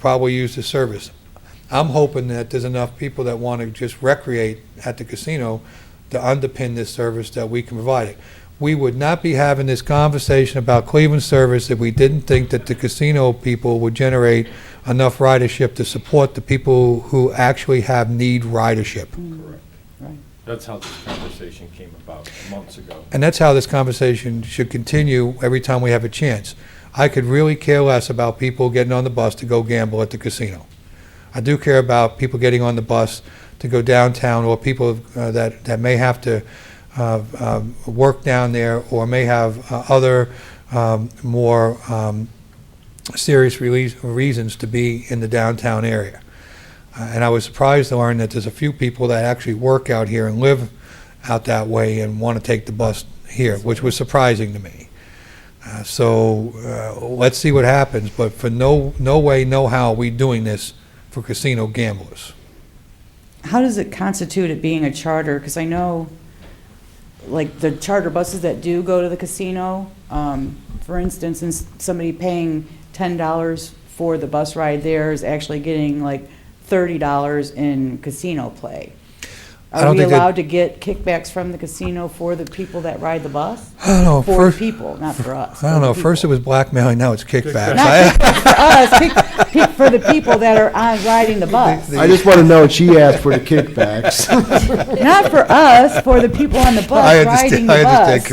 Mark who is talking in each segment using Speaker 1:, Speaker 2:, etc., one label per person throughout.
Speaker 1: probably use the service. I'm hoping that there's enough people that want to just recreate at the casino to underpin this service that we can provide it. We would not be having this conversation about Cleveland service if we didn't think that the casino people would generate enough ridership to support the people who actually have need ridership.
Speaker 2: That's how this conversation came about months ago.
Speaker 1: And that's how this conversation should continue every time we have a chance. I could really care less about people getting on the bus to go gamble at the casino. I do care about people getting on the bus to go downtown or people uh, that, that may have to uh, um, work down there or may have uh, other um, more um, serious release- reasons to be in the downtown area. Uh, And I was surprised to learn that there's a few people that actually work out here and live out that way and want to take the bus here, which was surprising to me. Uh, So uh, let's see what happens, but for no, no way, no how are we doing this for casino gamblers.
Speaker 3: How does it constitute it being a charter? Because I know, like, the charter buses that do go to the casino, um, for instance, and somebody paying $10 for the bus ride there is actually getting like $30 in casino play.
Speaker 1: I
Speaker 3: Are
Speaker 1: don't
Speaker 3: we
Speaker 1: think that-
Speaker 3: allowed to get kickbacks from the casino for the people that ride the bus?
Speaker 1: I don't know,
Speaker 3: For
Speaker 1: Oh, first,
Speaker 3: people, not for us.
Speaker 1: I don't
Speaker 3: for the
Speaker 1: know, first it
Speaker 3: people.
Speaker 1: was blackmailing, now it's kickbacks.
Speaker 3: Not
Speaker 1: I-
Speaker 3: kickbacks for us, kick- kick for the people that are on riding the bus.
Speaker 4: I just want to know, she asked for the kickbacks.
Speaker 3: Not for us, for the people on the
Speaker 1: I
Speaker 3: bus riding the
Speaker 1: understand,
Speaker 3: bus.
Speaker 1: I understand,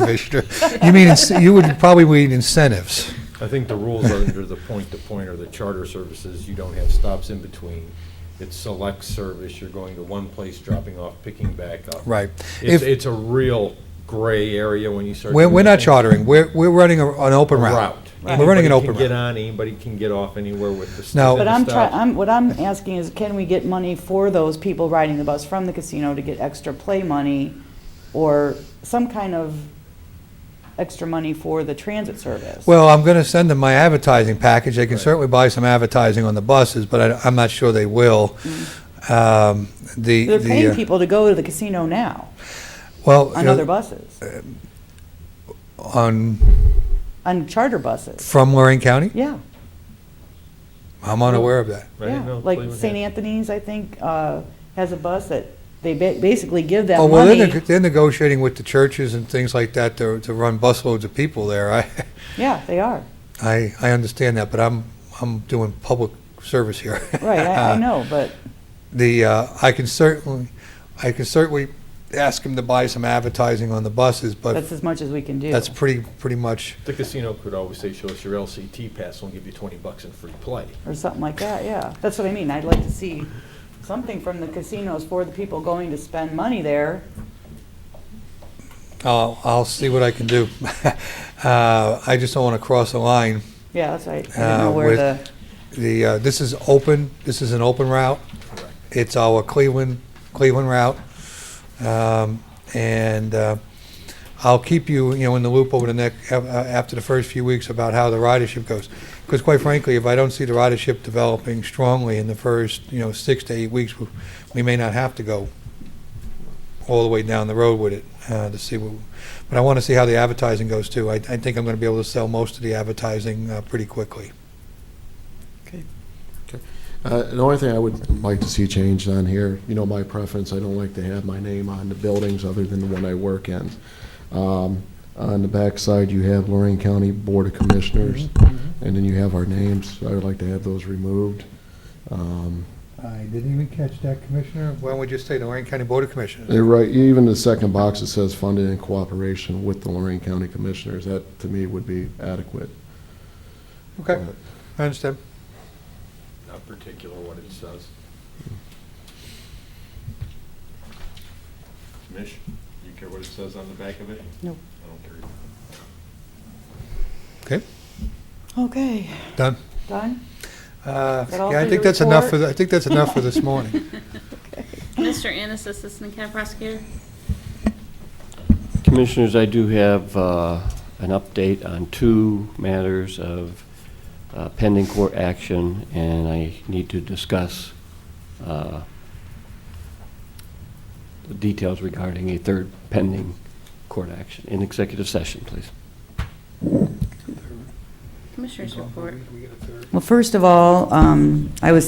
Speaker 1: Commissioner. You mean, ince- you would probably need incentives.
Speaker 2: I think the rules are under the point-to-point or the charter services, you don't have stops in between. It's select service, you're going to one place, dropping off, picking back up.
Speaker 1: Right. If-
Speaker 2: It's, it's a real gray area when you start.
Speaker 1: We're,
Speaker 2: doing
Speaker 1: we're not
Speaker 2: things.
Speaker 1: chartering, we're, we're running a- an open route. We're running an open
Speaker 2: Anybody can get
Speaker 1: route.
Speaker 2: on, anybody can get off anywhere with the.
Speaker 1: Now-
Speaker 2: stop
Speaker 3: But
Speaker 2: and
Speaker 3: I'm
Speaker 2: the
Speaker 3: trying,
Speaker 2: stop.
Speaker 3: I'm, what I'm asking is, can we get money for those people riding the bus from the casino to get extra play money? Or some kind of extra money for the transit service?
Speaker 1: Well, I'm going to send them my advertising package. They can certainly buy some advertising on the buses, but I, am not sure they will. Um, The,
Speaker 3: Mm. They're
Speaker 1: the,
Speaker 3: paying
Speaker 1: uh,
Speaker 3: people to go to the casino now,
Speaker 1: well,
Speaker 3: on
Speaker 1: uh,
Speaker 3: other buses,
Speaker 1: on,
Speaker 3: on charter buses,
Speaker 1: from Lorraine County?
Speaker 3: yeah,
Speaker 1: I'm unaware of that.
Speaker 2: I didn't know
Speaker 3: yeah. Like
Speaker 2: Cleveland had-
Speaker 3: St. Anthony's, I think, uh, has a bus that they ba- basically give that
Speaker 1: Oh, well, they're
Speaker 3: money.
Speaker 1: neg- they're negotiating with the churches and things like that to, to run busloads of people there. I,
Speaker 3: Yeah, they are,
Speaker 1: I, I understand that, but I'm, I'm doing public service here.
Speaker 3: right, I,
Speaker 1: Uh,
Speaker 3: I know, but,
Speaker 1: the, uh, I can certainly, I can certainly ask them to buy some advertising on the buses, but
Speaker 3: That's as much as we can do.
Speaker 1: that's pretty, pretty much
Speaker 2: The casino could always say, show us your LCT pass, we'll give you twenty bucks in free play.
Speaker 3: or something like that, yeah. That's what I mean, I'd like to see something from the casinos for the people going to spend money there.
Speaker 1: I'll, I'll see what I can do. Uh, I just don't want to cross the line.
Speaker 3: Yeah, that's right, I
Speaker 1: Uh,
Speaker 3: don't know where
Speaker 1: with-
Speaker 3: the,
Speaker 1: The, uh, this is open, this is an open route. It's our Cleveland, Cleveland route. Um, And uh, I'll keep you, you know, in the loop over the next, after the first few weeks about how the ridership goes. Because quite frankly, if I don't see the ridership developing strongly in the first, you know, six to eight weeks, we- we may not have to go all the way down the road with it uh, to see what, but I want to see how the advertising goes too. I I think I'm going to be able to sell most of the advertising uh, pretty quickly.
Speaker 4: Uh, The only thing I would like to see changed on here, you know, my preference, I don't like to have my name on the buildings other than the one I work in. Um, On the backside, you have Lorraine County Board of Commissioners,
Speaker 1: Mm-hmm.
Speaker 3: Mm-hmm.
Speaker 4: and then you have our names. I would like to have those removed. Um,
Speaker 1: I didn't even catch that, Commissioner. Why don't we just say the Lorraine County Board of Commissioners?
Speaker 4: They're right, even the second box that says funded in cooperation with the Lorraine County Commissioners, that to me would be adequate.
Speaker 1: Okay, I understand.
Speaker 2: Not particular what it says. Mish, you care what it says on the back of it?
Speaker 3: Nope.
Speaker 2: I don't care.
Speaker 1: Okay,
Speaker 3: okay,
Speaker 1: done.
Speaker 3: done?
Speaker 1: Uh,
Speaker 3: Is that
Speaker 1: Yeah,
Speaker 3: all for
Speaker 1: I
Speaker 3: your
Speaker 1: think that's enough
Speaker 3: report?
Speaker 1: for, the- I think that's enough for this morning.
Speaker 5: Mr. Annis, Assistant County Prosecutor.
Speaker 6: Commissioners, I do have uh, an update on two matters of uh, pending court action, and I need to discuss uh, the details regarding a third pending court action in executive session, please.
Speaker 5: Commissioners report.
Speaker 3: Well, first of all, um, I was